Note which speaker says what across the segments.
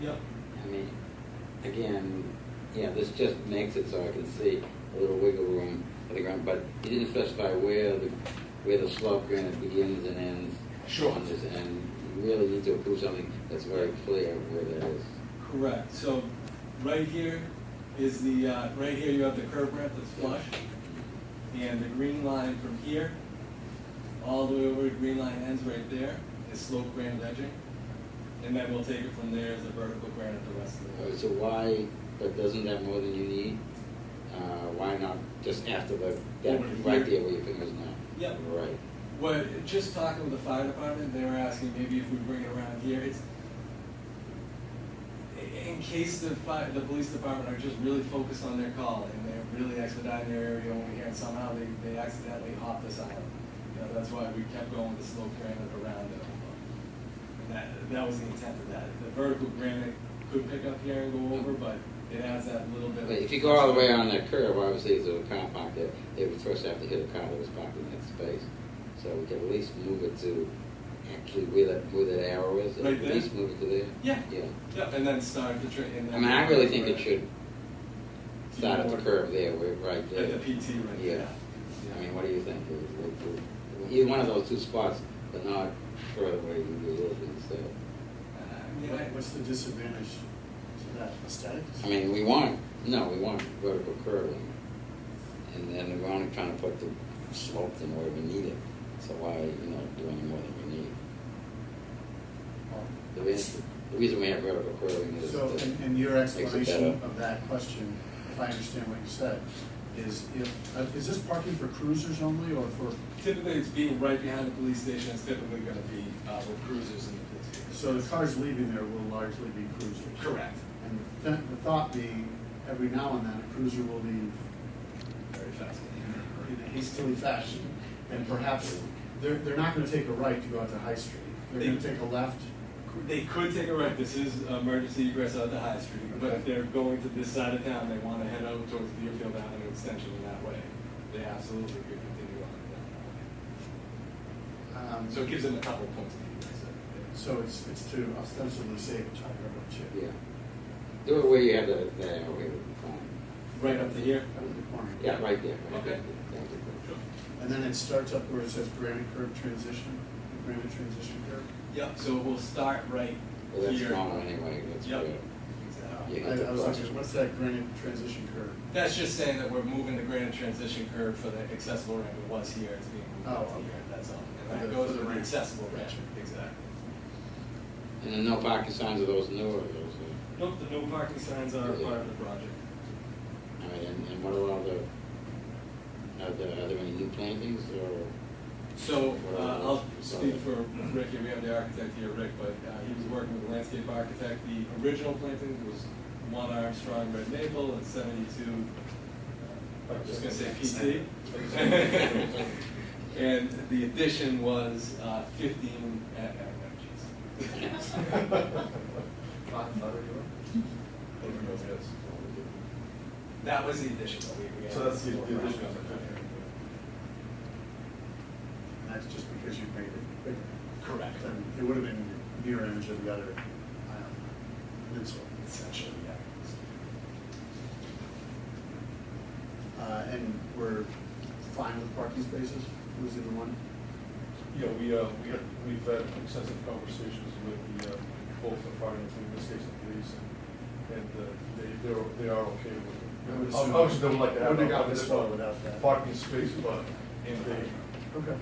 Speaker 1: Yep.
Speaker 2: I mean, again, you know, this just makes it so I can see a little wiggle room for the ground, but you didn't specify where the, where the slope granite begins and ends.
Speaker 1: Sure.
Speaker 2: on this, And you really need to approve something that's very clear where that is.
Speaker 1: Correct, so right here is the, uh, right here you have the curb ramp that's flush, and the green line from here, all the way over, the green line ends right there, is slope granite edging, and then we'll take it from there as a vertical granite the rest of the way.
Speaker 2: All right, Uh, So why, but doesn't that more than you need? Uh, why not just after the, that,
Speaker 1: Over here.
Speaker 2: right there where your fingers now?
Speaker 1: Yep.
Speaker 2: Right.
Speaker 1: What, just talking with the fire department, they were asking maybe if we bring it around here, it's, in case the fire, the police department are just really focused on their call, and they're really expediting their area over here, and somehow they, they accidentally hopped us out. You know, that's why we kept going with the slope granite around it. And that, that was the intent of that, the vertical granite could pick up here and go over, but it has that little bit of.
Speaker 2: But If you go all the way on that curve, obviously there's a car parked there, they would first have to hit a car that was parked in that space. So we can at least move it to actually where that, where that arrow is, and
Speaker 1: Right
Speaker 2: at
Speaker 1: there?
Speaker 2: least move it to there.
Speaker 1: Yeah.
Speaker 2: Yeah.
Speaker 1: Yep, and then start the tra- and then.
Speaker 2: I mean, I really think it should start at the
Speaker 1: Keyword.
Speaker 2: curve there, where, right there.
Speaker 1: At the PT right
Speaker 2: Yeah.
Speaker 1: there.
Speaker 2: I mean, what do you think? Either one of those two spots, but not further away than the other, so.
Speaker 1: Uh, yeah,
Speaker 3: What-
Speaker 1: I-
Speaker 3: What's the disadvantage to that aesthetic?
Speaker 2: I mean, we want, no, we want vertical curving. And then we're only trying to put the slope in where we need it. So why, you know, do any more than we need? The reason, the reason we have vertical curving is
Speaker 3: So,
Speaker 2: to-
Speaker 3: and, and your
Speaker 2: makes it
Speaker 3: explanation
Speaker 2: better.
Speaker 3: of that question, if I understand what you said, is if, uh, is this parking for cruisers only or for,
Speaker 1: Typically, it's being right behind the police station, it's typically gonna be, uh, with cruisers and the police vehicles.
Speaker 3: so the cars leaving there will largely be cruisers?
Speaker 1: Correct.
Speaker 3: And the th- the thought being, every now and then, a cruiser will leave
Speaker 1: Very fast.
Speaker 3: in a hastily fashion, and perhaps, they're, they're not gonna take a right to go out to High Street. They're gonna take a left,
Speaker 1: They could take a right, this is emergency egress out the High Street, but if they're going to this side of town, they wanna head out towards Deerfield Avenue Extension in that way, they absolutely could continue on
Speaker 3: um,
Speaker 1: down. So it gives them a couple points of egress.
Speaker 3: so it's, it's to ostensibly save a child or two.
Speaker 2: yeah. Do it where you have the, the arrow here.
Speaker 1: Right up to here?
Speaker 3: Out of the corner.
Speaker 2: Yeah, right there. right
Speaker 1: Okay.
Speaker 2: there. Thank you.
Speaker 3: And then it starts up where it says granite curve transition, granite transition curve.
Speaker 1: Yep, so we'll start right
Speaker 2: Well, that's
Speaker 1: here.
Speaker 2: smaller anyway, that's
Speaker 1: Yep.
Speaker 2: good.
Speaker 1: Exactly.
Speaker 2: Yeah,
Speaker 3: I, I was
Speaker 2: that's-
Speaker 3: like, what's that granite transition curve?
Speaker 1: That's just saying that we're moving the granite transition curve for the accessible ramp that was here, it's being moved
Speaker 3: Oh,
Speaker 1: up to
Speaker 3: okay.
Speaker 1: here, that's all.
Speaker 3: For
Speaker 1: And that
Speaker 3: the-
Speaker 1: goes
Speaker 3: for
Speaker 1: to
Speaker 3: the
Speaker 1: the
Speaker 3: ramp.
Speaker 1: accessible ramp, exactly.
Speaker 2: And then no parking signs of those newer, those, uh,
Speaker 1: Nope, the no parking signs
Speaker 2: are a part of
Speaker 1: the project.
Speaker 2: uh, all right, and, and what are all the, are there, are there any new plantings or?
Speaker 1: So, uh, I'll
Speaker 2: Sorry.
Speaker 1: speak for Rick, here. we have the architect here, Rick, but uh, he was working with a landscape architect. The original planting was one Armstrong red maple and seventy-two, uh, I'm just gonna say PT. And the addition was uh, fifteen, uh, uh, no, geez. That was the addition that we. we had.
Speaker 4: So that's the the addition of the fifty.
Speaker 3: And that's just because you made it bigger.
Speaker 1: Correct,
Speaker 3: Then it would have been mirror image of the other um, peninsula.
Speaker 1: essentially, yeah.
Speaker 3: Uh, and we're fine with parking spaces, losing the one?
Speaker 4: Yeah, we, uh, we, we've had extensive conversations with the, uh, both the fire and in this case the police, and, and uh, they, they're, they are
Speaker 3: I
Speaker 4: okay with
Speaker 3: would
Speaker 4: it.
Speaker 3: assume-
Speaker 4: Obviously, they would like to have.
Speaker 3: Wouldn't have
Speaker 4: a-
Speaker 3: gotten this far without that.
Speaker 4: Parking space, but they,
Speaker 1: In the parking lot.
Speaker 3: Okay.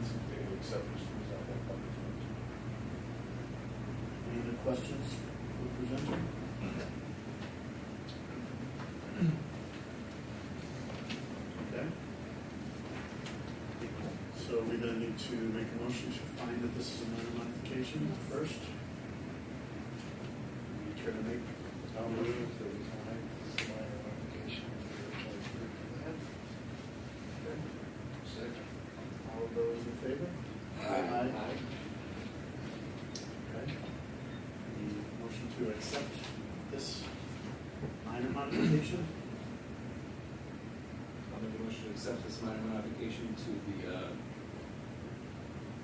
Speaker 4: they would accept this, for example, parking space.
Speaker 3: Any other questions for the presenter? Okay. So we're gonna need to make a motion to find that this is a minor modification first. You care to make? I'll move to find this minor modification. All of those in favor? Okay. The motion to accept this minor modification?
Speaker 5: I'll make a motion to accept this minor modification to the, uh,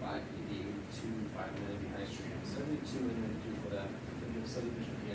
Speaker 5: five eighty-two, five ninety High Street, seventy-two, and then do for that, the new subdivision